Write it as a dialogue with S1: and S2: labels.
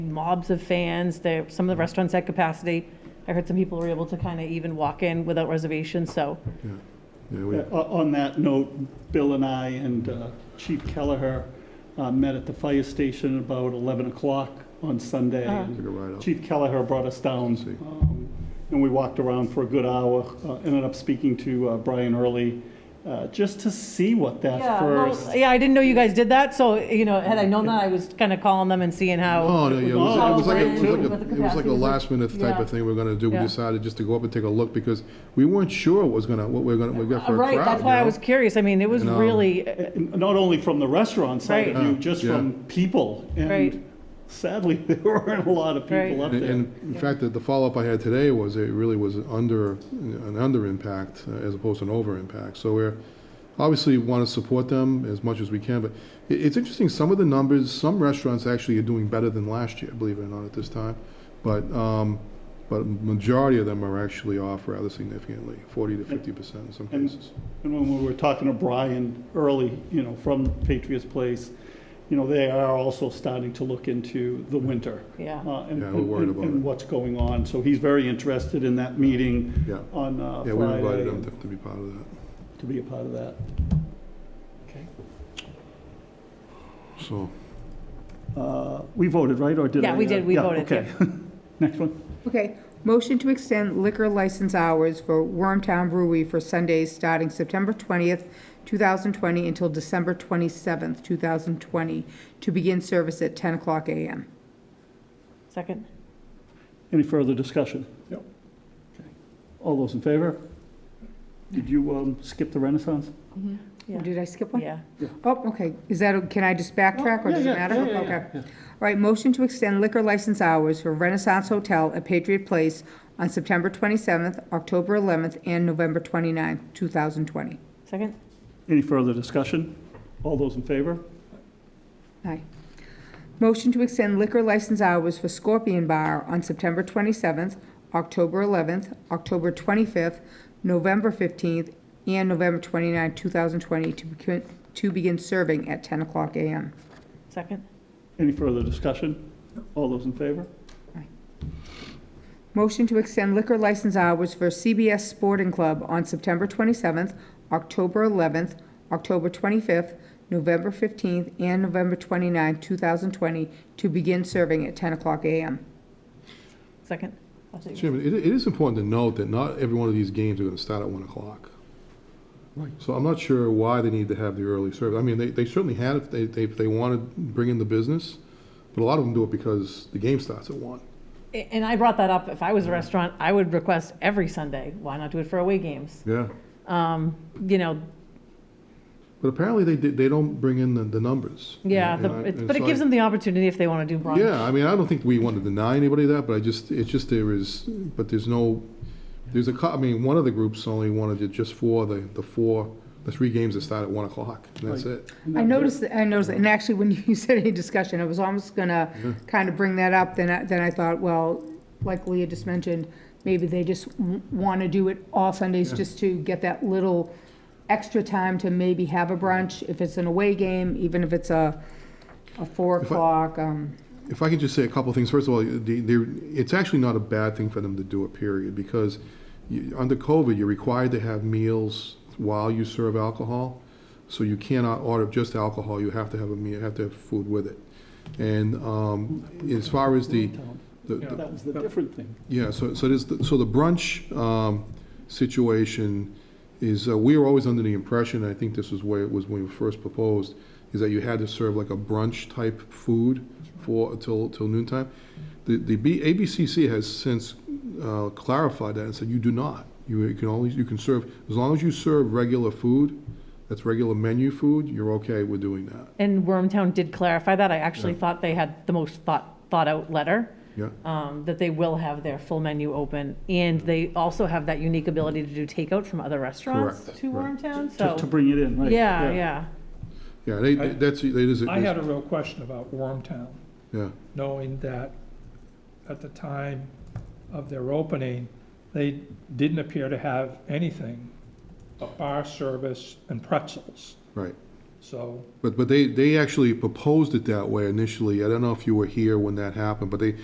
S1: mobs of fans. There, some of the restaurants had capacity. I heard some people were able to kind of even walk in without reservations, so
S2: Yeah, we-
S3: Uh, On that note, Bill and I and uh, Chief Kelleher uh, met at the fire station about 11 o'clock on Sunday.
S1: Uh-huh.
S3: and
S2: Took a ride up.
S3: Chief Kelleher brought us down,
S2: See.
S3: um, and we walked around for a good hour. uh, Ended up speaking to uh, Brian Early, uh, just to see what that first. eh,
S1: yeah, I didn't know you guys did that, so, you know, had I known that, I was kind of calling them and seeing how.
S2: Oh, no, yeah, it was, it was like, a- it was
S3: Oh,
S2: like,
S1: with the
S2: a- it was like a
S1: capacity,
S2: last minute type
S1: yeah.
S2: of thing we are gonna do. We
S1: Yeah.
S2: decided just to go up and take a look because we weren't sure what was gonna, what we are gonna, we got for a crowd.
S1: Right, that's why
S2: you
S1: I
S2: know?
S1: was curious. I mean, it was
S2: You know,
S1: really,
S3: And eh, Not only from the restaurant side of
S1: Right.
S3: you,
S2: Yeah,
S3: just
S2: yeah.
S3: from people.
S1: Right.
S3: And sadly, there weren't a lot of
S1: Right.
S3: people up
S2: And-
S3: there.
S2: And in fact, the- the follow-up I had today was it really was under, an under impact uh, as opposed to an over impact. So we're, obviously want to support them as much as we can, but i- it's interesting, some of the numbers, some restaurants actually are doing better than last year, believe it or not, at this time. But, um, but majority of them are actually off rather significantly, forty to fifty percent in some
S3: And-
S2: cases.
S3: And when we were talking to Brian early, you know, from Patriots Place, you know, they are also starting to look into the winter.
S1: Yeah.
S3: uh, and-
S2: Yeah, we're worried about
S3: And
S2: it.
S3: what's going on. So he's very interested in that meeting
S2: Yeah,
S3: on uh,
S2: yeah, we invited them
S3: Friday
S2: to to be part of that,
S3: to be a part of that. Okay.
S2: so.
S3: Uh, We voted, right, or did I?
S1: Yeah, we
S3: uh,
S1: did. We
S3: yeah,
S1: voted,
S3: okay. Next one.
S4: Okay, motion to extend liquor license hours for Wormtown Brewery for Sundays starting September 20th, 2020 until December 27th, 2020, to begin service at 10 o'clock a.m.
S1: second,
S3: Any further discussion? Yep. All those in favor? Did you um, skip the Renaissance?
S1: Yeah.
S4: Did I skip one?
S1: yeah.
S4: Oh, okay, is that, can I just backtrack, or does
S3: Yeah,
S4: it
S3: yeah,
S4: matter?
S3: yeah, yeah,
S4: Okay. All right, motion to extend liquor license hours for Renaissance Hotel at Patriot Place on September 27th, October 11th, and November 29th, 2020.
S1: Second,
S3: Any further discussion? All those in favor?
S4: Aye. Motion to extend liquor license hours for Scorpion Bar on September 27th, October 11th, October 25th, November 15th, and November 29th, 2020, to begin- to begin serving at 10 o'clock a.m.
S1: second,
S3: Any further discussion? All those in favor?
S4: Motion to extend liquor license hours for CBS Sporting Club on September 27th, October 11th, October 25th, November 15th, and November 29th, 2020, to begin serving at 10 o'clock a.m.
S1: second. I'll take it.
S2: Chairman, it, it is important to note that not every one of these games are gonna start at one o'clock.
S3: Right.
S2: So I'm not sure why they need to have the early service. I mean, they, they certainly had if they, they, if they wanted to bring in the business, but a lot of them do it because the game starts at one.
S1: A- And I brought that up. If I was a restaurant, I would request every Sunday. Why not do it for away games?
S2: Yeah.
S1: Um, you know,
S2: But apparently they, did- they don't bring in the, the numbers.
S1: yeah,
S2: And
S1: the,
S2: I-
S1: it's,
S2: and
S1: but it
S2: so
S1: gives
S2: I-
S1: them the opportunity if they want to do brunch.
S2: Yeah, I mean, I don't think we want to deny anybody that, but I just, it's just there is, but there's no, there's a, cou- I mean, one of the groups only wanted it just for the, the four, the three games that start at one o'clock, and that's
S3: Right.
S2: it.
S4: I noticed, that- I noticed, that, and actually, when you said any discussion, I was almost gonna kind of bring that up, then I, then I thought, well, like Leah just mentioned, maybe they just w- wanna do it all Sundays, just to get that little extra time to maybe have a brunch, if it's an away game, even if it's a, a four
S2: If I-
S4: o'clock, um,
S2: If I could just say a couple of things, first of all, the, the, it's actually not a bad thing for them to do it, period, because you, under COVID, you're required to have meals while you serve alcohol. So you cannot order just alcohol, you have to have a meal, have to have food with it. And, um, as far as the, the- the-
S3: That was the different thing.
S2: yeah, so, so there's, the- so the brunch, um, situation is, uh, we were always under the impression, and I think this was where it was when we first proposed, is that you had to serve like a brunch-type food for, till, till noon time. The, the B, ABCC has since, uh, clarified that and said you do not. You can only, you can serve, as long as you serve regular food, that's regular menu food, you're okay with doing that,
S1: And Wormtown did clarify that. I actually thought they had the most thought, thought out letter,
S2: yeah?
S1: um, that they will have their full menu open. And they also have that unique ability to do takeout from other restaurants
S2: Correct,
S1: to
S2: right.
S1: Wormtown,
S3: To to
S1: so,
S3: bring it in, right?
S1: yeah, yeah.
S2: Yeah, they, they- that's, that is,
S5: I had
S2: yeah,
S5: a real question about Wormtown, knowing that at the time of their opening, they didn't appear to have anything but bar service and pretzels.
S2: right,
S5: So
S2: But, but they, they actually proposed it that way initially. I don't know if you were here when that happened, but they,